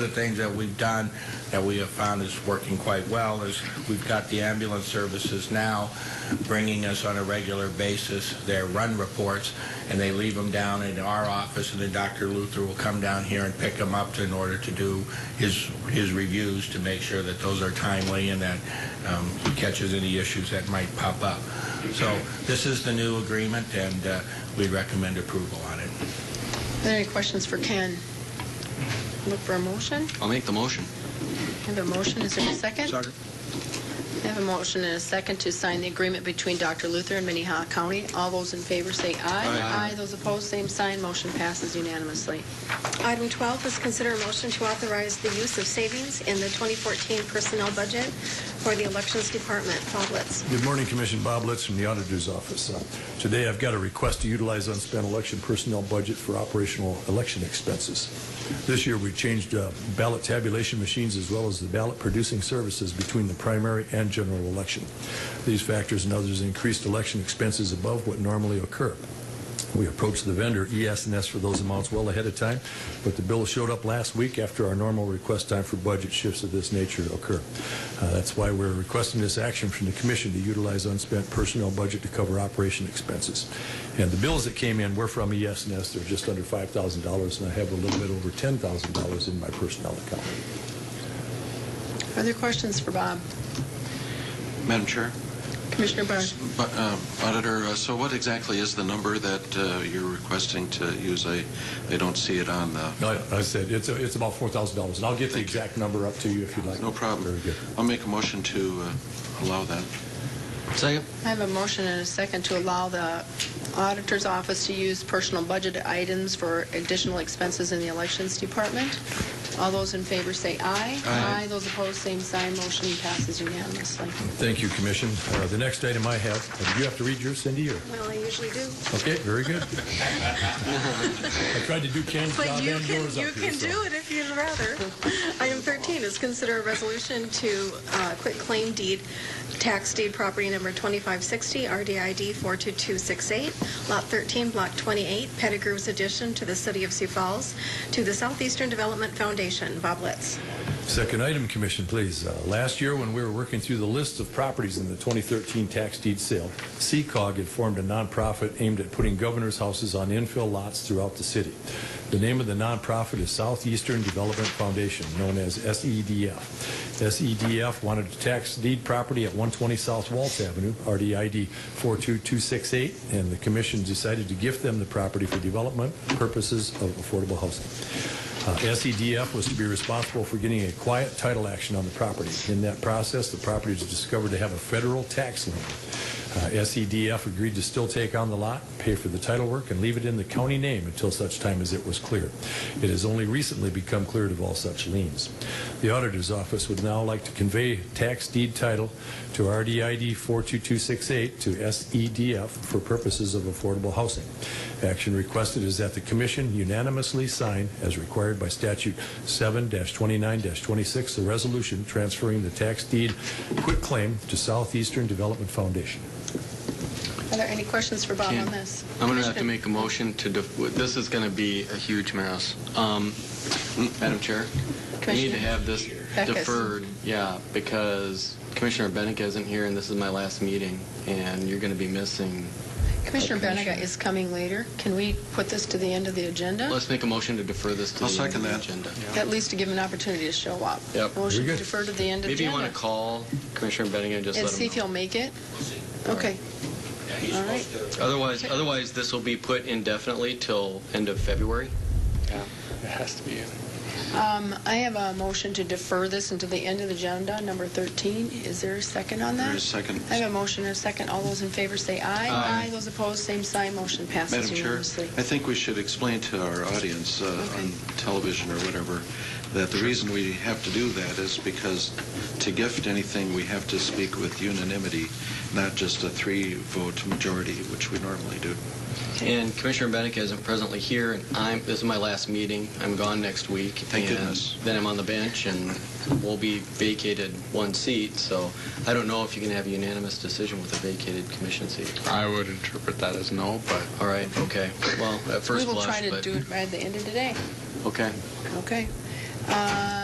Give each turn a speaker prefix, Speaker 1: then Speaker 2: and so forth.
Speaker 1: The things that we've done, that we have found is working quite well, is we've got the ambulance services now bringing us on a regular basis their run reports, and they leave them down in our office, and then Dr. Luther will come down here and pick them up in order to do his, his reviews to make sure that those are timely and that um, he catches any issues that might pop up. So this is the new agreement, and uh, we recommend approval on it.
Speaker 2: Are there any questions for Ken? Look for a motion.
Speaker 3: I'll make the motion.
Speaker 2: I have a motion. Is there a second? I have a motion and a second to sign the agreement between Dr. Luther and Minnehaha County. All those in favor say aye.
Speaker 3: Aye.
Speaker 2: Aye. Those opposed, same sign. Motion passes unanimously.
Speaker 4: Item 12 is consider a motion to authorize the use of savings in the 2014 personnel budget for the Elections Department. Bob Litz.
Speaker 5: Good morning, Commission. Bob Litz from the Auditor's Office. Uh, Today, I've got a request to utilize unspent election personnel budget for operational election expenses. This year, we've changed uh, ballot tabulation machines as well as the ballot producing services between the primary and general election. These factors and others increased election expenses above what normally occur. We approached the vendor, E ES&S, for those amounts well ahead of time, but the bill showed up last week after our normal request time for budget shifts of this nature to occur. Uh, That's why we're requesting this action from the commission to utilize unspent personnel budget to cover operation expenses. And the bills that came in were from E ES&S. They're just under $5,000, and I have a little bit over $10,000 in my personnel account.
Speaker 2: Are there questions for Bob?
Speaker 3: Madam Chair,
Speaker 2: Commissioner Barnes?
Speaker 3: Bu- uh, Auditor, uh, so what exactly is the number that uh, you're requesting to use? I I don't see it on the,
Speaker 5: No, I said, it's it's about $4,000, and I'll get
Speaker 3: Thank
Speaker 5: the
Speaker 3: you.
Speaker 5: exact number up to you if you'd like.
Speaker 3: no problem.
Speaker 5: Very good.
Speaker 3: I'll make a motion to uh, allow that. Second.
Speaker 2: I have a motion and a second to allow the auditor's office to use personal budget items for additional expenses in the elections department. All those in favor say aye.
Speaker 3: Aye.
Speaker 2: Those opposed, same sign. Motion passes unanimously.
Speaker 5: Thank you, Commission. Uh, The next item I have, uh, do you have to read yours, Cindy, or?
Speaker 4: Well, I usually do.
Speaker 5: Okay, very good. I tried to do Ken's job
Speaker 4: But you
Speaker 5: and
Speaker 4: can,
Speaker 5: yours up
Speaker 4: you
Speaker 5: here,
Speaker 4: can do
Speaker 5: so.
Speaker 4: it if you'd rather. Item 13 is consider a resolution to uh, quit claim deed, tax deed property number 2560, RDID 42268, Lot 13, Block 28, Pettigrew's addition to the city of Sioux Falls, to the Southeastern Development Foundation. Bob Litz.
Speaker 5: Second item, Commission, please. Uh, Last year, when we were working through the list of properties in the 2013 tax deed sale, CCOG had formed a nonprofit aimed at putting governor's houses on infill lots throughout the city. The name of the nonprofit is Southeastern Development Foundation, known as E SEDF. SEDF E wanted to tax deed property at 120 South Waltz Avenue, RDID 42268, and the commission decided to gift them the property for development purposes of affordable housing. Uh, SEDF was to be responsible for getting a quiet title action on the property. In that process, the property was discovered to have a federal tax lien. Uh, SEDF agreed to still take on the lot, pay for the title work, and leave it in the county name until such time as it was cleared. It has only recently become cleared of all such liens. The auditor's office would now like to convey tax deed title to RDID 42268 to SEDF for purposes of affordable housing. Action requested is that the commission unanimously sign, as required by statute 7-29-26, the resolution transferring the tax deed quitclaim to Southeastern Development Foundation.
Speaker 2: Are there any questions for Bob
Speaker 6: Ken,
Speaker 2: on this?
Speaker 6: I'm going to have to
Speaker 2: Commissioner-
Speaker 6: make a motion to, def- this is going to be a huge mess. Um, Madam Chair, we need
Speaker 2: Commissioner
Speaker 6: to have this
Speaker 2: Beck is-
Speaker 6: deferred, yeah, because Commissioner Bennett isn't here, and this is my last meeting, and you're going to be missing.
Speaker 2: Commissioner
Speaker 6: Commissioner.
Speaker 2: Benega is coming later. Can we put this to the end of the agenda?
Speaker 6: Let's make a motion to defer this to
Speaker 3: I'll
Speaker 6: the end of
Speaker 3: second
Speaker 6: the
Speaker 3: that.
Speaker 6: agenda.
Speaker 2: At least to give him an opportunity to show up.
Speaker 6: Yep.
Speaker 2: Motion
Speaker 5: Very
Speaker 2: to
Speaker 5: good.
Speaker 2: defer to the end of
Speaker 6: Maybe
Speaker 2: agenda.
Speaker 6: you want to call Commissioner Bennett and just
Speaker 2: And
Speaker 6: let
Speaker 2: see if
Speaker 6: him
Speaker 2: he'll
Speaker 6: know.
Speaker 2: make it? Okay.
Speaker 1: Yeah, he's
Speaker 2: All right.
Speaker 1: supposed to
Speaker 6: Otherwise, otherwise, this will be put indefinitely till end of February.
Speaker 7: Yeah, it has to be.
Speaker 2: Um, I have a motion to defer this until the end of the agenda, number 13. Is there a second on
Speaker 3: There is
Speaker 2: that?
Speaker 3: second.
Speaker 2: I have a motion and a second. All those in favor say aye.
Speaker 6: Aye.
Speaker 2: Those opposed, same sign. Motion
Speaker 3: Madam
Speaker 2: passes
Speaker 3: Chair,
Speaker 2: unanimously.
Speaker 3: I think we should explain to our audience uh,
Speaker 2: Okay.
Speaker 3: on television or whatever that the reason we have to do that is because to gift anything, we have to speak with unanimity, not just a three-vote majority, which we normally do.
Speaker 6: And Commissioner Bennett isn't presently here, and I'm, this is my last meeting. I'm gone next week.
Speaker 3: Thank
Speaker 6: and
Speaker 3: goodness.
Speaker 6: Then I'm on the bench, and we'll be vacated one seat, so I don't know if you can have a unanimous decision with a vacated commission seat.
Speaker 7: I would interpret that as no, but
Speaker 6: All right, okay. Well, at
Speaker 2: We
Speaker 6: first
Speaker 2: will
Speaker 6: blush,
Speaker 2: try to
Speaker 6: but-
Speaker 2: do it by the end of today.
Speaker 6: Okay.
Speaker 2: Okay. Um,